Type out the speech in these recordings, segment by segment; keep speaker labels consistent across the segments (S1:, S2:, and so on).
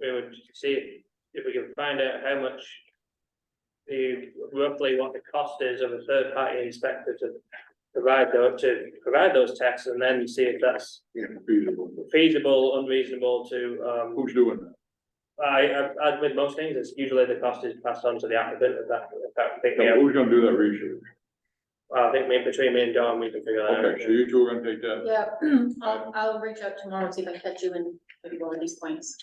S1: we would see if we can find out how much. The roughly what the cost is of a third party inspector to provide those, to provide those tests and then see if that's
S2: Yeah, feasible.
S1: feasible, unreasonable to, um.
S2: Who's doing that?
S1: I, I, as with most things, it's usually the cost is passed on to the applicant, if that, if that, thing,
S2: Now,
S1: yeah,
S2: Who's gonna do that research?
S1: I think me, between me and Don, we can figure that out.
S2: Okay, so you two are gonna take that.
S3: Yeah, I'll, I'll reach out tomorrow and see if I can catch you in maybe one of these points.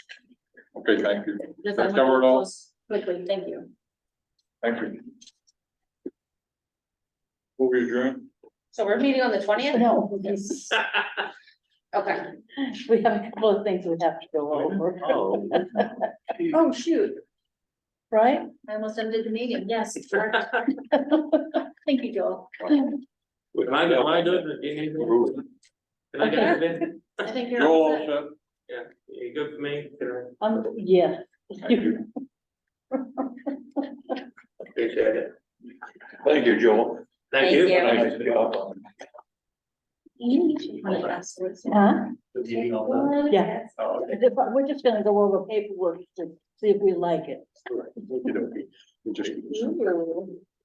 S2: Okay, thank you.
S3: Just I
S2: That
S3: want to
S2: cover it all?
S3: close Quickly, thank you.
S2: Thank you. Who will adjourn?
S4: So we're meeting on the twentieth?
S5: No, it's-
S4: Okay.
S5: we have a couple of things we have to go over,
S2: Oh.
S3: Oh, shoot,
S5: right?
S3: I almost ended the meeting, yes. correct. Thank you, Joel.
S1: Am I, am I doing, it? do you need me? Can I get anything?
S3: I think
S2: You're
S3: you're all
S2: all
S3: set.
S2: set.
S1: Yeah, you good for me? Can I-
S5: Um, yeah.
S2: Thank you.
S1: Appreciate it.
S2: Thank you, Joel.
S1: Thank
S4: Thank
S1: you.
S4: you.
S2: Thank you.
S3: When it lasts, it's-
S5: Huh?
S1: You need all that?
S5: Yeah,
S1: Oh, okay.
S5: we're just gonna go over paperwork to see if we like it.
S2: Okey-dokey. We just-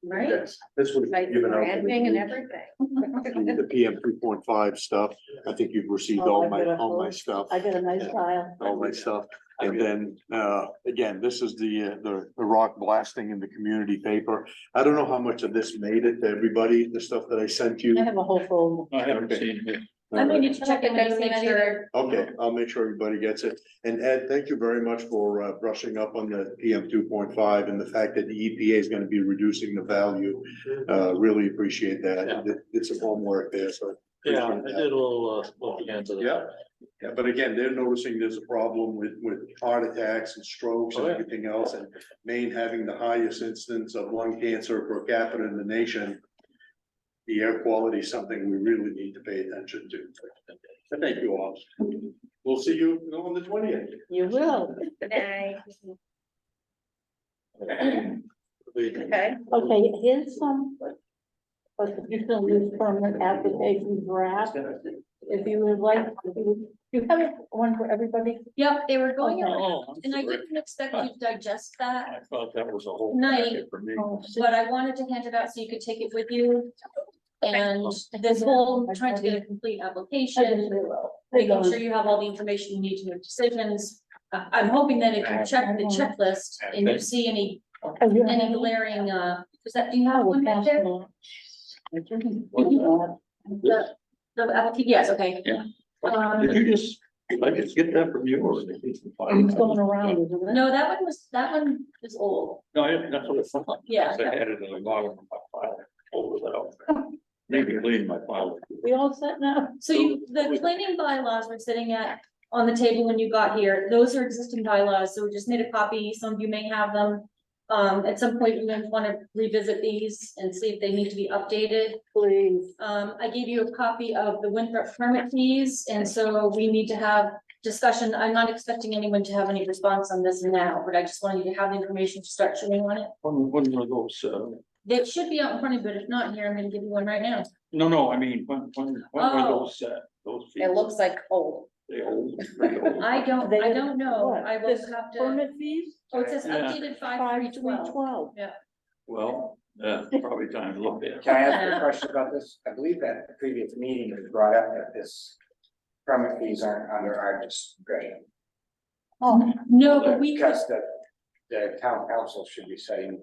S4: Right?
S6: Yes, this was
S4: Like
S6: given out,
S4: branding and everything.
S6: the PM three point five stuff, I think you've received all my, all my stuff,
S5: I got a nice file.
S6: all my stuff. And then, uh, again, this is the, uh, the, the rock blasting in the community paper. I don't know how much of this made it to everybody, the stuff that I sent you.
S5: I have a whole folder.
S2: I haven't seen it.
S3: I mean, you check it, and make sure.
S6: Okay, I'll make sure everybody gets it. And Ed, thank you very much for uh, brushing up on the PM two point five and the fact that the EPA is gonna be reducing the value. Uh, really appreciate that. It- It's some homework there, so.
S7: Yeah, I did a little, uh, look into that.
S6: Yeah, yeah, but again, they're noticing there's a problem with, with heart attacks and strokes and
S7: Oh, yeah.
S6: everything else, and Maine having the highest incidence of lung cancer per capita in the nation. The air quality is something we really need to pay attention to. So Thank you all. We'll see you on the twentieth.
S5: You will.
S4: Okay.
S5: Okay, here's some. Constitutional use permit application draft. If you would like, if you, you have one for everybody?
S3: Yep, they were going around,
S7: Oh, I'm
S3: and I
S7: sorry.
S3: didn't expect you to digest that,
S7: I thought that was a whole.
S3: Night.
S7: packet For me.
S5: Oh,
S3: but I wanted to hand it out so you could take it with you. And this whole trying to get a complete application, making sure you have all the information you need to make decisions. Uh, I'm hoping that if you check the checklist and you see any,
S5: Oh, you have
S3: any
S5: it?
S3: glaring, uh, is that, do you
S5: Oh,
S3: have one back
S5: that's
S3: there?
S5: not- I didn't do that.
S3: The, the, applica- yes, okay.
S7: Yeah.
S3: Um,
S7: Did you just, did I just get that from you or? did you find
S5: It's
S7: it?
S5: going around, isn't it?
S3: no, that one was, that one is old,
S7: No, I- that's what it sounded like.
S3: Yeah.
S7: I had it in the bottom of my file, folded out. Maybe clean my file.
S5: We all set now?
S3: so you, the planning bylaws were sitting at, on the table when you got here, those are existing bylaws, so we just made a copy, some of you may have them. Um, at some point, you may wanna revisit these and see if they need to be updated.
S5: Please.
S3: Um, I gave you a copy of the Winthrop permit fees, and so we need to have discussion. I'm not expecting anyone to have any response on this now, but I just wanted you to have the information to start chewing on it.
S7: One, one of those, uh,
S3: That should be out in front of you, but if not, here, I'm gonna give you one right now.
S7: no, no, I mean, one, one, one of
S3: Oh.
S7: those, uh, those.
S4: It looks like old.
S7: The old, the old.
S3: I don't, I don't know.
S5: What?
S3: I will
S5: This
S3: have to,
S5: Permit fees?
S3: oh, it says
S7: Yeah.
S3: updated five
S5: Five,
S3: three
S5: three,
S3: twelve.
S5: twelve.
S7: Well, uh, probably time to look at.
S8: Can I ask you a question about this? I believe that the previous meeting was brought up that this permit fees aren't under our discretion.
S5: Oh,
S3: No, but we could,
S8: Because the, the town council should be setting,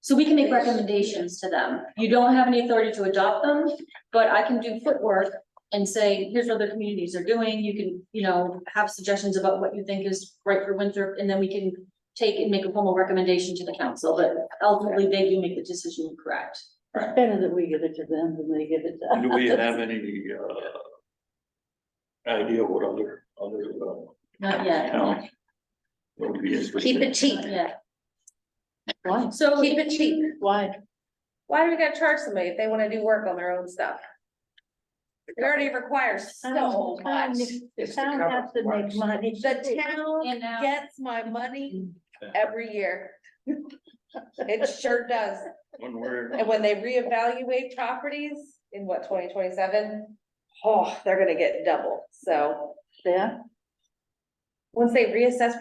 S3: so we can make recommendations to them. You don't have any authority to adopt them, but I can do footwork and say, here's what other communities are doing. You can, you know, have suggestions about what you think is right for Winthrop, and then we can take and make a formal recommendation to the council, but ultimately they do make the decision correct.
S5: it's better that we give it to them than they give it to us.
S7: Do we have any, uh, idea what other, other, uh,
S3: Not yet,
S7: towns? would be
S4: Keep
S7: interested?
S4: it cheap.
S3: not yet.
S5: Why?
S3: So.
S4: Keep it cheap.
S5: Why?
S4: Why do we gotta charge somebody if they wanna do work on their own stuff? It already requires so
S5: The town-
S4: much.
S5: The
S8: It's the
S5: town
S8: cover
S5: has to make
S8: price.
S5: money.
S4: The town
S3: And now.
S4: gets my money every year. It sure does.
S7: When we're.
S4: And when they reevaluate properties in what, twenty twenty-seven? Oh, they're gonna get double. So
S5: There.
S4: once they reassess